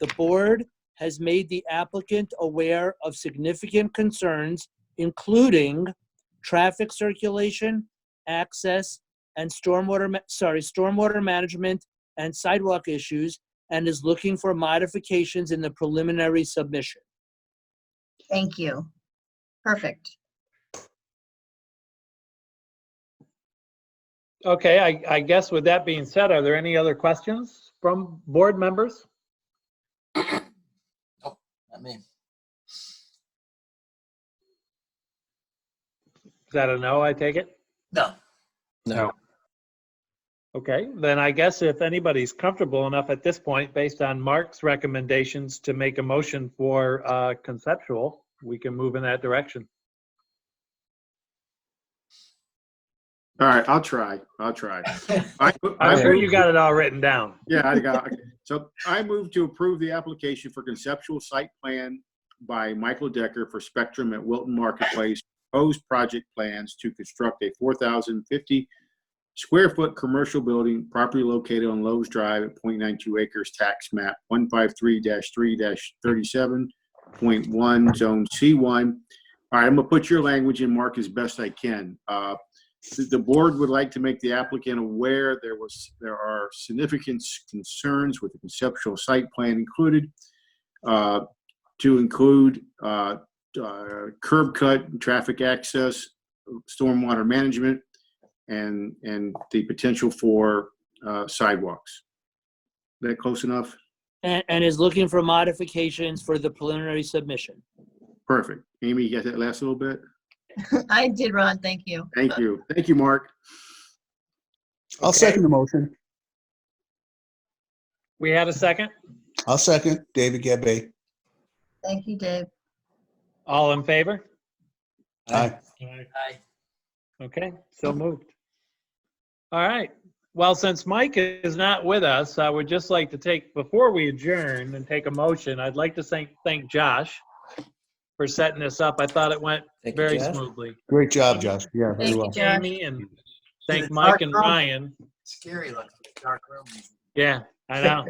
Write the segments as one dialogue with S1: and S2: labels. S1: The board has made the applicant aware of significant concerns, including traffic circulation, access, and stormwater, ma- sorry, stormwater management and sidewalk issues, and is looking for modifications in the preliminary submission.
S2: Thank you. Perfect.
S3: Okay, I, I guess with that being said, are there any other questions from board members?
S4: I mean,
S3: Is that a no, I take it?
S4: no.
S3: No. Okay, then I guess if anybody's comfortable enough at this point, based on Mark's recommendations to make a motion for uh, conceptual, we can move in that direction.
S5: All right, I'll try. I'll try. I, I,
S3: I'm sure
S5: move-
S3: you got it all written down.
S5: yeah, I got. okay. So I move to approve the application for conceptual site plan by Michael Decker for Spectrum at Wilton Marketplace. Proposed project plans to construct a 4,050 square foot commercial building properly located on Lowe's Drive at 0.92 acres, tax map 153-3-37.1, zone C1. All right, I'm gonna put your language in, Mark, as best I can. Uh, the- The board would like to make the applicant aware there was, there are significant s- concerns with the conceptual site plan included uh, to include uh, uh, curb cut, traffic access, stormwater management, and, and the potential for uh, sidewalks. That close enough?
S1: And, and is looking for modifications for the preliminary submission.
S5: Perfect. Amy, you got that last little bit?
S2: I did, Ron, thank you.
S5: Thank you. Thank you, Mark.
S6: I'll second the motion.
S3: We had a second?
S6: I'll second David Gabay.
S2: Thank you, Dave.
S3: All in favor?
S6: Aye.
S4: Aye.
S3: Okay, so moved. All right. Well, since Mike is not with us, I would just like to take, before we adjourn and take a motion, I'd like to thank, thank Josh for setting this up. I thought it went
S4: Thank you,
S3: very
S4: Jeff.
S3: smooth.
S6: Great job, Josh. Yeah, very
S2: Thank you,
S6: well.
S2: Josh.
S3: Amy and thank Mike and Ryan.
S4: Scary looking, dark room.
S3: Yeah, I know.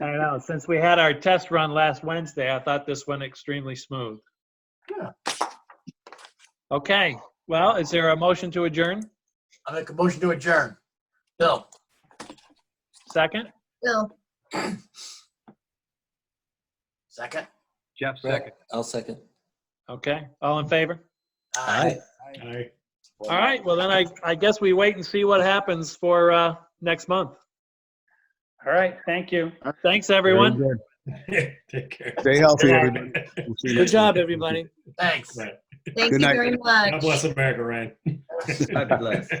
S3: I know. Since we had our test run last Wednesday, I thought this went extremely smooth.
S4: Yeah.
S3: Okay, well, is there a motion to adjourn?
S4: I make a motion to adjourn. Bill,
S3: Second?
S2: Bill,
S4: second?
S3: Jeff,
S7: I'll second.
S3: Okay, all in favor?
S4: Aye.
S3: All right, well then I, I guess we wait and see what happens for, uh, next month. All right, thank you. Thanks, everyone.
S6: Very good. Stay healthy,
S3: Good
S6: everybody. We'll see you
S1: Good
S6: next
S1: job,
S6: week.
S1: everybody.
S4: Thanks.
S2: thank you
S6: Good night.
S2: very
S8: God
S2: much.
S8: bless America, Ryan.
S7: God bless.